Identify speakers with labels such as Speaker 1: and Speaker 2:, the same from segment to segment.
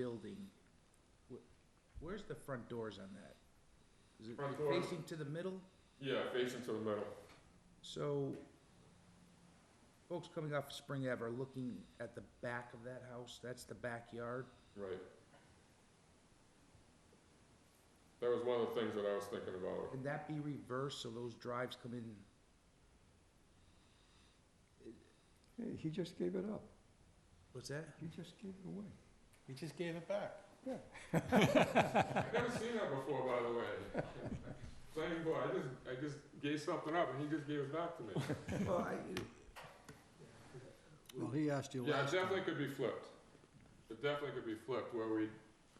Speaker 1: building, wh- where's the front doors on that? Is it
Speaker 2: Front door.
Speaker 1: facing to the middle?
Speaker 2: Yeah, facing to the middle.
Speaker 1: So folks coming off Spring Ave are looking at the back of that house, that's the backyard.
Speaker 2: Right. That was one of the things that I was thinking about.
Speaker 1: Can that be reversed so those drives come in?
Speaker 3: Hey, he just gave it up.
Speaker 1: What's that?
Speaker 3: He just gave it away.
Speaker 4: We just gave it back.
Speaker 2: I've never seen that before, by the way. Planning board, I just, I just gave something up and he just gave it back to me.
Speaker 1: Well, I,
Speaker 5: Well, he asked you
Speaker 2: Yeah, it
Speaker 5: last time.
Speaker 2: definitely could be flipped. It definitely could be flipped where we,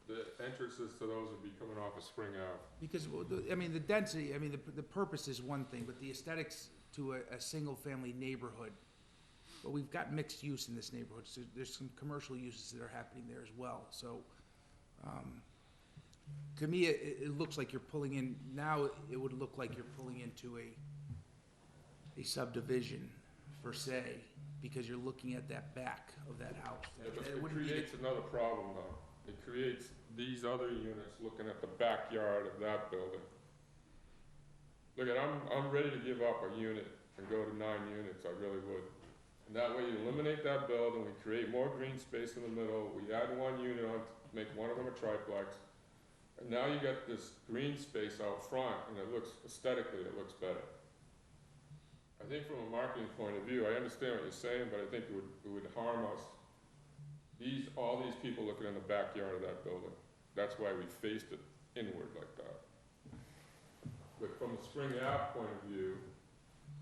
Speaker 2: the entrances to those would be coming off of Spring Ave.
Speaker 1: because, well, the- I mean, the density, I mean, the, the purpose is one thing, but the aesthetics to a, a single-family neighborhood. But we've got mixed use in this neighborhood, so there's some commercial uses that are happening there as well, so. um, To me, it, it- it looks like you're pulling in, now it would look like you're pulling into a, a subdivision per se, because you're looking at that back of that house.
Speaker 2: Yeah, but
Speaker 1: It
Speaker 2: It
Speaker 1: wouldn't be the-
Speaker 2: creates another problem though. It creates these other units looking at the backyard of that building. Look at, I'm, I'm ready to give up a unit and go to nine units, I really would. And that way you eliminate that building, we create more green space in the middle, we add one unit on, make one of them a triplex. And now you got this green space out front and it looks aesthetically, it looks better. I think from a marketing point of view, I understand what you're saying, but I think it would, it would harm us these, all these people looking in the backyard of that building, that's why we faced it inward like that. But from a Spring Ave point of view,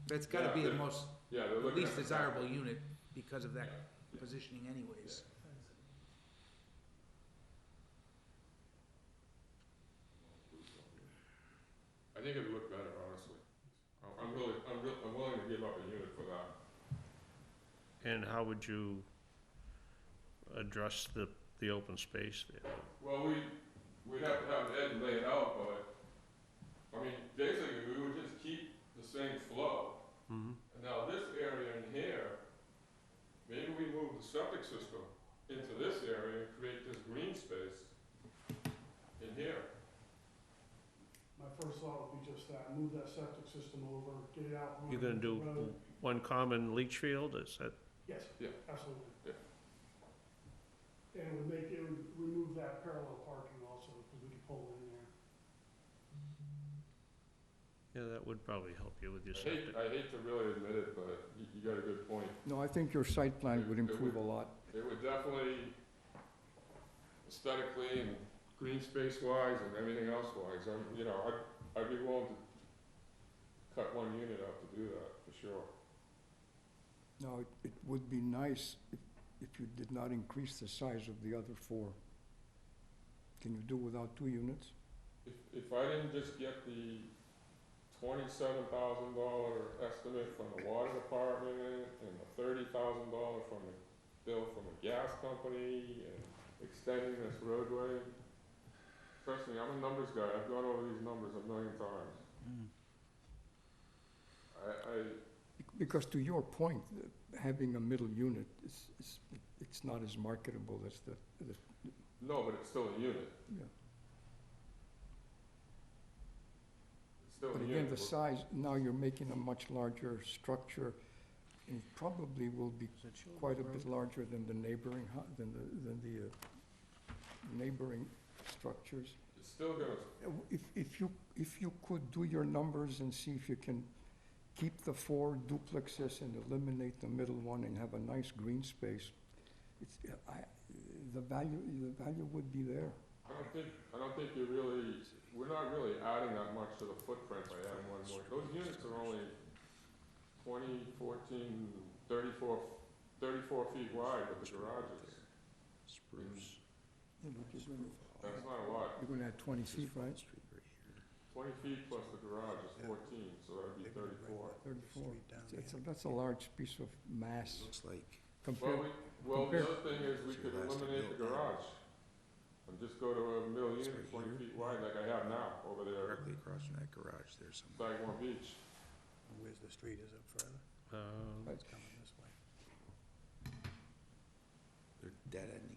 Speaker 1: That's gotta
Speaker 2: Yeah,
Speaker 1: be the
Speaker 2: they're-
Speaker 1: most,
Speaker 2: yeah, they're
Speaker 1: the
Speaker 2: looking at.
Speaker 1: least
Speaker 2: the back-
Speaker 1: desirable unit because of that
Speaker 2: yeah.
Speaker 1: positioning anyways.
Speaker 2: I think it'd look better, honestly. I'm- I'm really, I'm real, I'm willing to give up a unit for that.
Speaker 6: And how would you address the, the open space there?
Speaker 2: Well, we, we'd have to have Ed lay it out, but, I mean, basically, we would just keep the same flow.
Speaker 6: Mhm.
Speaker 2: And Now, this area in here, maybe we move the septic system into this area and create this green space in here.
Speaker 7: My first thought would be just that, move that septic system over, get it out.
Speaker 6: You're gonna do
Speaker 7: Road.
Speaker 6: one common leach field, is that,
Speaker 7: Yes.
Speaker 2: Yeah.
Speaker 7: Absolutely.
Speaker 2: Yeah.
Speaker 7: And it would make, it would remove that parallel parking also, because we could pull in there.
Speaker 6: yeah, that would probably help you with your
Speaker 2: I hate,
Speaker 6: septic.
Speaker 2: I hate to really admit it, but you, you got a good point.
Speaker 3: No, I think your site plan would improve a lot.
Speaker 2: It would definitely aesthetically and green space wise and everything else wise, I'm, you know, I'd, I'd be willing to cut one unit out to do that, for sure.
Speaker 3: Now, it- it would be nice if, if you did not increase the size of the other four. Can you do without two units?
Speaker 2: If, if I didn't just get the twenty-seven thousand dollar estimate from the water department and the thirty thousand dollar from the bill from the gas company and extending this roadway, trust me, I'm a numbers guy, I've gone over these numbers a million times.
Speaker 3: Mm,
Speaker 2: I, I,
Speaker 3: Bec- Because to your point, uh, having a middle unit is, is, it's not as marketable as the, the,
Speaker 2: no, but it's still a unit,
Speaker 3: yeah.
Speaker 2: it's still
Speaker 3: But
Speaker 2: a
Speaker 3: again,
Speaker 2: unit.
Speaker 3: the
Speaker 2: We're-
Speaker 3: size, now you're making a much larger structure, and it probably will be quite a bit larger than the neighboring, hu- than the, than the uh, neighboring structures.
Speaker 2: It's still gonna,
Speaker 3: Uh, w- If, if you, if you could do your numbers and see if you can keep the four duplexes and eliminate the middle one and have a nice green space, it's, uh, I, the value, the value would be there.
Speaker 2: I don't think, I don't think you're really, we're not really adding that much to the footprint by adding one more. Those units are only 20, 14, 34 34 feet wide with the garages.
Speaker 5: Spruce.
Speaker 3: Yeah, but You're gonna-
Speaker 2: That's not a lot.
Speaker 3: you're gonna add twenty feet, right?
Speaker 2: Twenty feet plus the garage is fourteen, so that'd be thirty-four.
Speaker 3: Thirty-four. That's a, that's a large piece of mass
Speaker 5: Looks like.
Speaker 2: Well,
Speaker 3: compared,
Speaker 2: we, well, the
Speaker 3: Compare-
Speaker 2: other thing is we could eliminate the garage and just go to a middle unit twenty feet wide like I have now over there at
Speaker 5: Directly across from that garage there somewhere.
Speaker 2: Sagamore Beach.
Speaker 5: Where's the street is up further?
Speaker 6: Uh,
Speaker 5: It's coming this way. They're dead end